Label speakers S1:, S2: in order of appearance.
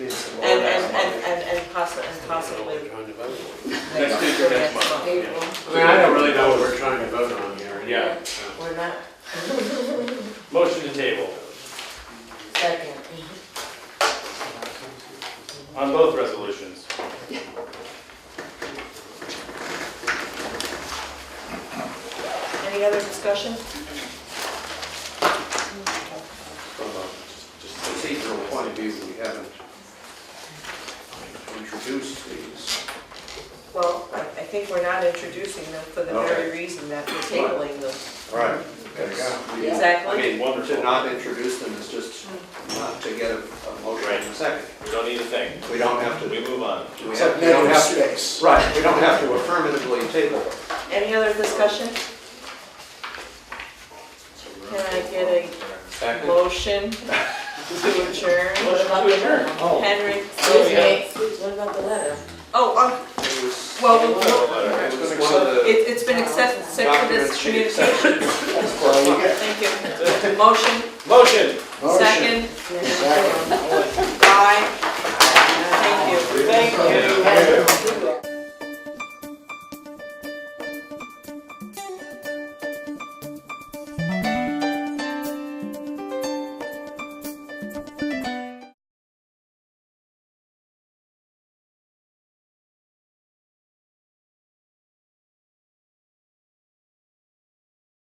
S1: possibly, and possibly
S2: We're trying to vote on.
S3: Next week or next month, yeah.
S1: April.
S2: I mean, I don't really know what we're trying to vote on here.
S3: Yeah.
S2: Uh,
S1: We're not,
S3: Motion to table
S1: second. Mm-hmm.
S3: on both resolutions.
S1: Any other discussion?
S4: From a just procedural point of view, we haven't introduced these.
S1: Well, I, I think we're not introducing them for the very
S4: Okay.
S1: reason that we're tabling them.
S4: Right. I
S1: Exactly.
S4: mean, to not introduce them is just not to get a a motion in a second.
S3: We don't need a thing.
S4: We don't have to,
S3: We
S4: we
S3: move on.
S4: have we don't have to, right, we don't have to affirmatively table it.
S1: Any other discussion? Can I get a motion to adjourn?
S3: Motion Oh. to adjourn.
S1: Henry,
S5: Excuse me, excuse, what about the letter?
S1: oh, um,
S4: It was-
S1: well,
S4: It
S1: well,
S4: was one of the
S1: it, it's been accepted, sent to
S4: documents.
S1: this
S4: she
S1: communication,
S4: accepted.
S1: thank you. Motion,
S3: Motion.
S1: second,
S5: Yeah,